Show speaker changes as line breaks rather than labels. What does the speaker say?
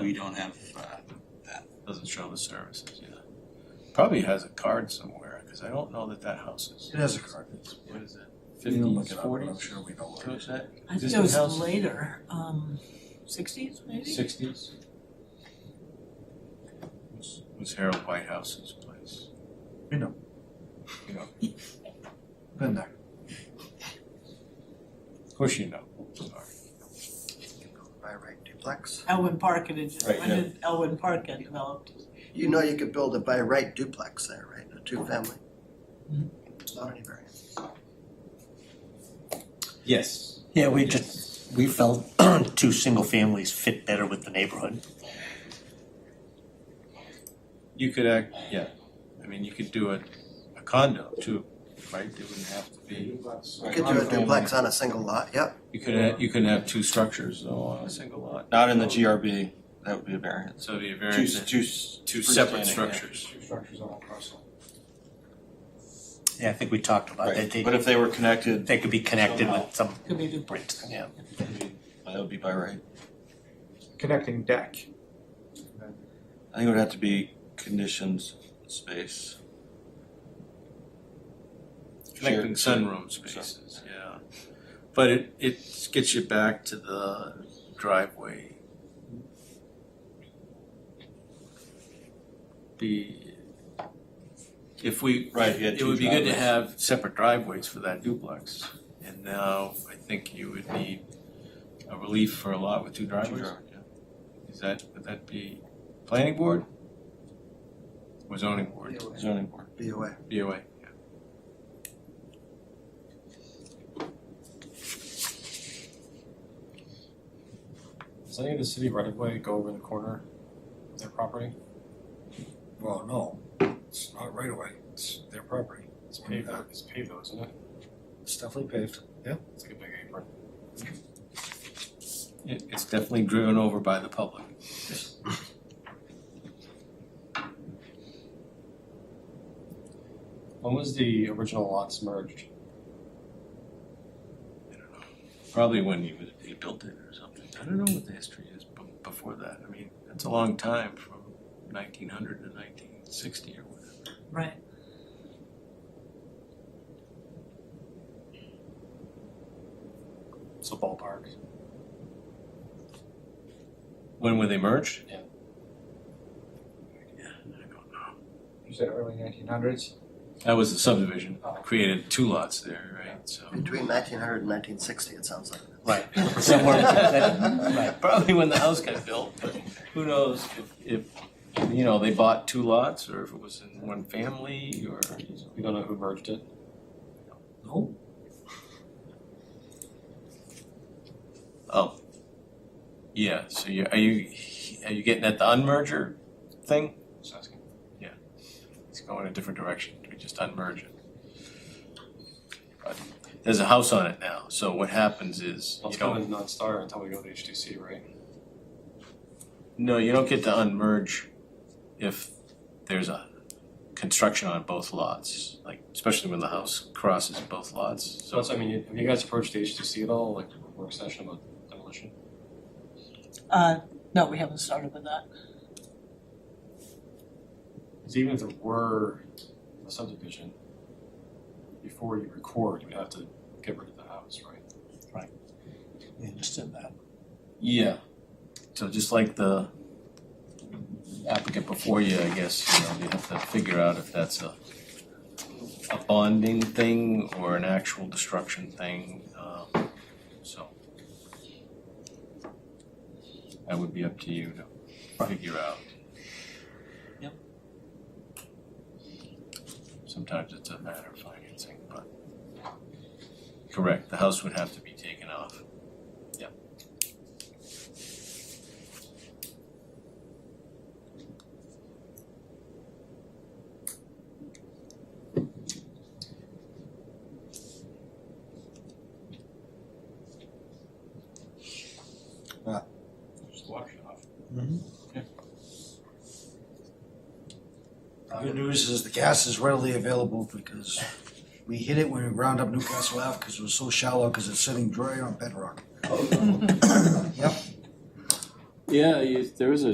we don't have, uh,
Doesn't show the services, yeah. Probably has a card somewhere, because I don't know that that house is.
It has a card.
What is it?
You can
Fifties,
look it up, but I'm
forties?
sure we know what it
What
is.
is that?
I think
Existing
it was
house?
later, um, sixties maybe?
Sixties? Was- Was Harold Whitehouse's place.
Been there.
Of course you know, sorry.
by right duplex.
Elwin Park had, it-
Right,
when
yeah.
did Elwin Park get developed?
You know you could build a by right duplex there, right, a two-family?
Mhm.
Not any variance.
Yes.
Yeah, we just, we felt two single families fit better with the neighborhood.
You could act, yeah, I mean, you could do a, a condo too, right? It wouldn't have to be.
You could do a duplex on a single lot, yep.
You could, ha- you could have two structures though on a single lot.
Not in the GRB, that would be a variance.
So the
Two,
variance,
s- two,
two separate
structures.
structures.
Structures on a parcel.
Yeah, I think we talked about that.
Right,
They,
but if they were connected,
they could be connected with some
Could be duplex.
bricks, yeah.
that would be by right.
connecting deck.
I think it would have to be conditioned space.
Connecting
Shared- shared-
sunroom spaces, yeah. But it, it gets you back to the driveway. The, if we,
Right, you had
it
two
would be good to
driveways.
have separate driveways for that duplex. And now I think you would need a relief for a lot with two
shared
driveways.
driveway, yeah.
Is that, would that be planning board? Or zoning board,
Zoning board.
Be away.
BOA?
Does any of the city right of way go over the corner of their property?
Well, no, it's not right away, it's their property,
It's
paved
paved,
though-
it's paved though, isn't it?
it's definitely paved. Yeah.
It's like a big apron.
It, it's definitely driven over by the public.
When was the original lots merged?
Probably when he was, he built it or something. I don't know what the history is b- before that. I mean, that's a long time from nineteen hundred to nineteen sixty or whatever.
Right.
So ballpark.
When were they merged?
Yeah.
Yeah, I don't know.
You said early nineteen hundreds? Oh.
That was the subdivision, created two lots there, right, so.
Between 1900 and 1960, it sounds like.
Right. Somewhere, right, probably when the house got built, but who knows if, if, you know, they bought two lots or if it was in one family or.
We don't know who merged it.
No,
Oh. Yeah, so you, are you, are you getting at the unmerger thing? Just asking. Yeah. It's going a different direction, we just unmerge it. But There's a house on it now, so what happens is,
Well,
you
It's
don't,
going to non-star until we go to HTC, right?
no, you don't get to unmerge if there's a construction on both lots, like, especially when the house crosses both lots,
So
so.
that's, I mean, have you guys approached the HTC at all, like a work session about demolition?
Uh, no, we haven't started with that.
Because even if there were a subdivision, before you record, you'd have to get rid of the house, right?
We understood that.
Yeah. So just like the applicant before you, I guess, you know, you have to figure out if that's a a bonding thing or an actual destruction thing, um, so. That would be up to you to figure out.
Yep.
Sometimes it's a matter of financing, but, correct, the house would have to be taken off.
Just wash it off.
the good news is the gas is readily available because we hit it when we ground up Newcastle Ave because it was so shallow because it's sitting dry on bedrock.
Yeah, you, there is a